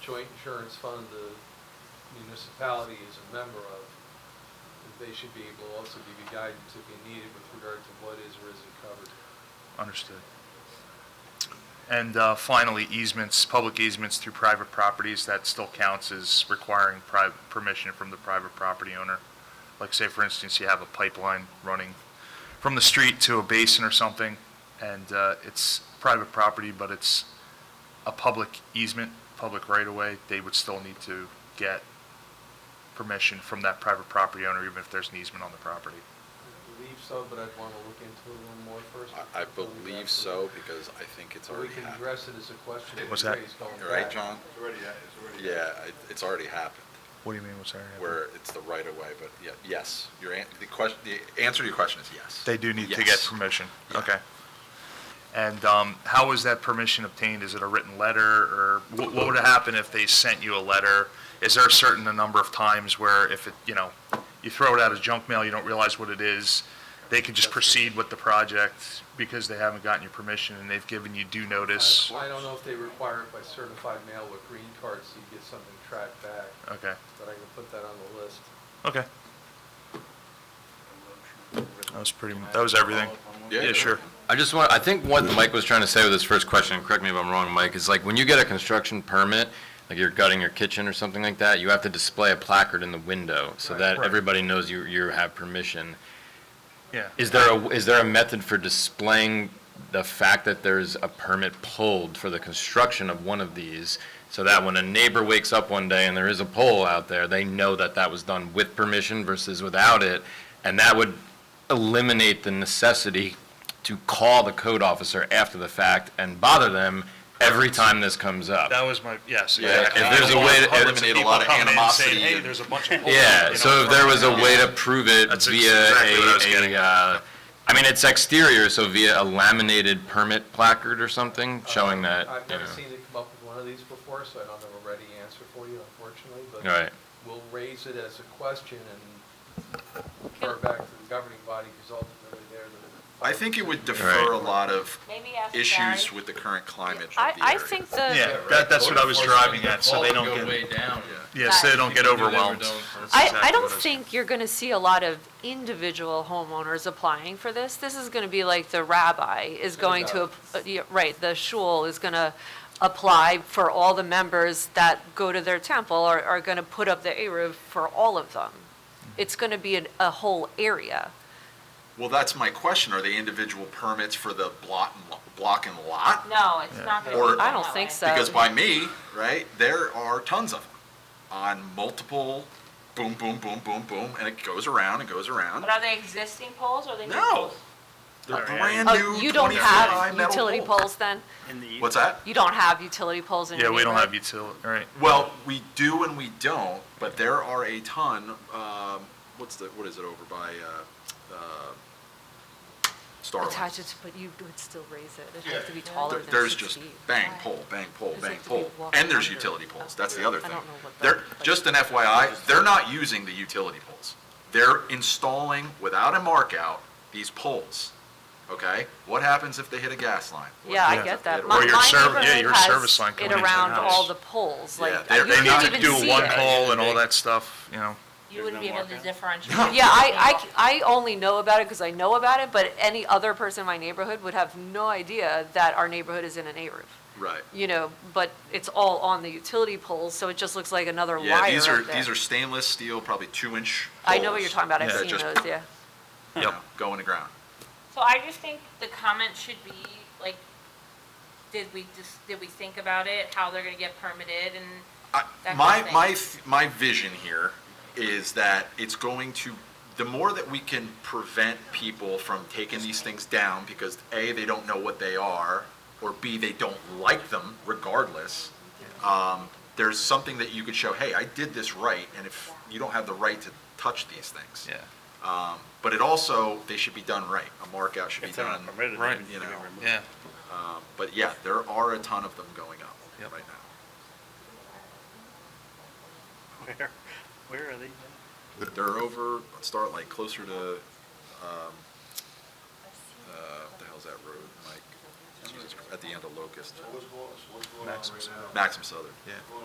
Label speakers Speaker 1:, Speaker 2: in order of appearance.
Speaker 1: joint insurance fund the municipality is a member of, that they should be able to also give you guidance if you need it with regard to what is or isn't covered.
Speaker 2: Understood. And uh, finally, easements, public easements through private properties, that still counts as requiring pri- permission from the private property owner. Like say, for instance, you have a pipeline running from the street to a basin or something, and uh, it's private property, but it's a public easement, public right-of-way, they would still need to get permission from that private property owner, even if there's an easement on the property.
Speaker 1: I believe so, but I'd want to look into it a little more first.
Speaker 3: I, I
Speaker 1: before we
Speaker 3: believe
Speaker 1: got
Speaker 3: so,
Speaker 1: to-
Speaker 3: because I think it's
Speaker 1: But We
Speaker 3: already
Speaker 1: can
Speaker 3: happened.
Speaker 1: address it as a question. that
Speaker 2: What's
Speaker 1: you
Speaker 2: that?
Speaker 1: raised going
Speaker 3: You're Right,
Speaker 1: back.
Speaker 3: John?
Speaker 4: It's already, it's already.
Speaker 3: Yeah, it- it's already happened,
Speaker 2: What do you mean, what's that?
Speaker 3: where it's the right of way, but yeah, yes, your, an- the question, the answer to your question is yes.
Speaker 2: They do need to get
Speaker 3: Yes.
Speaker 2: permission,
Speaker 3: Yeah.
Speaker 2: okay. And um, how was that permission obtained? Is it a written letter, or wh- what would happen if they sent you a letter? Is there a certain number of times where if it, you know, you throw it out as junk mail, you don't realize what it is, they could just proceed with the project because they haven't gotten your permission and they've given you due notice?
Speaker 1: I I don't know if they require it by certified mail with green cards, so you get something tracked back,
Speaker 2: Okay,
Speaker 1: but I can put that on the list.
Speaker 2: okay, that
Speaker 4: That
Speaker 2: was pretty, that was everything. Yeah, sure.
Speaker 5: I just want, I think what Mike was trying to say with his first question, and correct me if I'm wrong, Mike, is like, when you get a construction permit, like you're gutting your kitchen or something like that, you have to display a placard in the window so
Speaker 2: Right.
Speaker 5: that
Speaker 2: Right.
Speaker 5: everybody knows you, you have permission.
Speaker 2: Yeah.
Speaker 5: Is there a, is there a method for displaying the fact that there's a permit pulled for the construction of one of these? So that when a neighbor wakes up one day and there is a pole out there, they know that that was done with permission versus without it? And that would eliminate the necessity to call the code officer after the fact and bother them every time this comes up.
Speaker 2: That was my, yes.
Speaker 3: Yeah,
Speaker 2: exactly.
Speaker 5: if there's a way to-
Speaker 2: Hundreds
Speaker 3: eliminate a
Speaker 2: people
Speaker 3: lot of
Speaker 2: coming in saying,
Speaker 3: animosity
Speaker 2: Hey,
Speaker 3: and-
Speaker 2: there's a bunch of.
Speaker 5: Yeah,
Speaker 2: you
Speaker 5: so
Speaker 2: know,
Speaker 5: if there was a
Speaker 2: from-
Speaker 5: way to prove it
Speaker 2: That's
Speaker 5: via
Speaker 2: exactly what I was
Speaker 5: a,
Speaker 2: getting
Speaker 5: a, uh, I mean, it's exterior, so via a laminated permit placard or something Uh, showing that,
Speaker 1: I've
Speaker 5: you
Speaker 1: never
Speaker 5: know.
Speaker 1: seen it come up with one of these before, so I don't have a ready answer for you, unfortunately, but
Speaker 5: Right.
Speaker 1: we'll raise it as a question and refer back to the governing body, because ultimately they're the.
Speaker 3: I think it would defer a lot of
Speaker 6: Maybe ask
Speaker 3: issues
Speaker 6: Gary.
Speaker 3: with the current climate of the
Speaker 6: I,
Speaker 3: area.
Speaker 6: I think the.
Speaker 2: Yeah, that, that's what I was driving at, so they don't get, yeah, so they don't get overwhelmed. That's
Speaker 6: I,
Speaker 2: exactly
Speaker 6: I
Speaker 2: what
Speaker 6: don't
Speaker 2: was-
Speaker 6: think you're gonna see a lot of individual homeowners applying for this. This is gonna be like the rabbi is going to, ap- uh, yeah, right, the shul is gonna apply for all the members that go to their temple or are gonna put up the Eruv for all of them.
Speaker 2: Mm-hmm.
Speaker 6: It's gonna be an- a whole area.
Speaker 3: Well, that's my question, are they individual permits for the block, and lo- block and lot?
Speaker 7: No, it's not gonna
Speaker 3: Or-
Speaker 7: be.
Speaker 6: I don't think so.
Speaker 3: Because by me, right, there are tons of them on multiple, boom, boom, boom, boom, boom, and it goes around and goes around.
Speaker 7: But are they existing poles or are they new
Speaker 3: No,
Speaker 7: poles?
Speaker 3: they're
Speaker 2: Alright.
Speaker 3: brand new
Speaker 6: Oh, you don't
Speaker 3: 24 high
Speaker 6: have
Speaker 3: metal
Speaker 6: utility poles then?
Speaker 3: What's that?
Speaker 6: You don't have utility poles in your
Speaker 2: Yeah, we don't
Speaker 6: neighborhood?
Speaker 2: have utility, all right.
Speaker 3: Well, we do and we don't, but there are a ton. Um, what's the what is it over by uh, uh, Starlight?
Speaker 6: Attach it, to- but you would still raise it. It'd have to be
Speaker 3: There-
Speaker 6: taller than
Speaker 3: there's
Speaker 6: six
Speaker 3: just
Speaker 6: feet.
Speaker 3: bang pole, bang pole,
Speaker 6: Does it
Speaker 3: bang
Speaker 6: have to be
Speaker 3: pole,
Speaker 6: walking
Speaker 3: and there's
Speaker 6: under?
Speaker 3: utility poles. That's the other
Speaker 6: I
Speaker 3: thing.
Speaker 6: don't know what
Speaker 3: They're
Speaker 6: that- like-
Speaker 3: just an FYI. They're not using the utility poles. They're installing without a mark out these poles. Okay, what happens if they hit a gas line? What
Speaker 6: Yeah, I
Speaker 3: happens
Speaker 6: get
Speaker 3: if they hit
Speaker 6: that.
Speaker 3: a-
Speaker 6: My
Speaker 2: Or your
Speaker 6: my
Speaker 2: serv- yeah,
Speaker 6: neighborhood
Speaker 2: your
Speaker 6: has
Speaker 2: service line coming
Speaker 6: It
Speaker 2: into the
Speaker 6: around all
Speaker 2: house.
Speaker 6: the poles,
Speaker 3: Yeah,
Speaker 6: like, you
Speaker 3: they're-
Speaker 2: They need
Speaker 6: can't
Speaker 2: to
Speaker 6: even
Speaker 2: do
Speaker 6: see
Speaker 2: one
Speaker 6: it.
Speaker 2: pole and all that stuff, you know.
Speaker 7: You wouldn't be able to differentiate.
Speaker 6: Yeah, I, I c- I only know about it because I know about it, but any other person in my neighborhood would have no idea that our neighborhood is in an A-roof.
Speaker 3: Right.
Speaker 6: You know, but it's all on the utility poles, so it just looks like another wire
Speaker 3: Yeah,
Speaker 6: up
Speaker 3: these are
Speaker 6: there.
Speaker 3: these are stainless steel, probably two inch.
Speaker 6: I know what you're
Speaker 3: poles
Speaker 6: talking about. I've
Speaker 3: that
Speaker 6: seen
Speaker 3: just,
Speaker 6: those, yeah.
Speaker 3: you know, Go in the ground.
Speaker 7: So I just think the comment should be, like, did we just, did we think about it, how they're gonna get permitted and
Speaker 3: I-
Speaker 7: That kind
Speaker 3: My,
Speaker 7: of thing.
Speaker 3: my, th- my vision here is that it's going to, the more that we can prevent people from taking these things down, because A, they don't know what they are, or B, they don't like them regardless, um, there's something that you could show, hey, I did this right, and if, you don't have the right to touch these things.
Speaker 2: Yeah.
Speaker 3: Um, But it also, they should be done right. A markout should be done.
Speaker 2: Right.
Speaker 3: You know,
Speaker 2: Yeah.
Speaker 3: um, but yeah, there are a ton of them going up
Speaker 2: Yep.
Speaker 3: right now.
Speaker 4: Where, where are they?
Speaker 3: They're over, start like closer to, um, uh, what the hell's that road, Mike? Jesus Christ, At the end of Locust,
Speaker 4: What's going, what's going on right
Speaker 2: Maxim's.
Speaker 4: now?
Speaker 3: Maxim Southern. Yeah.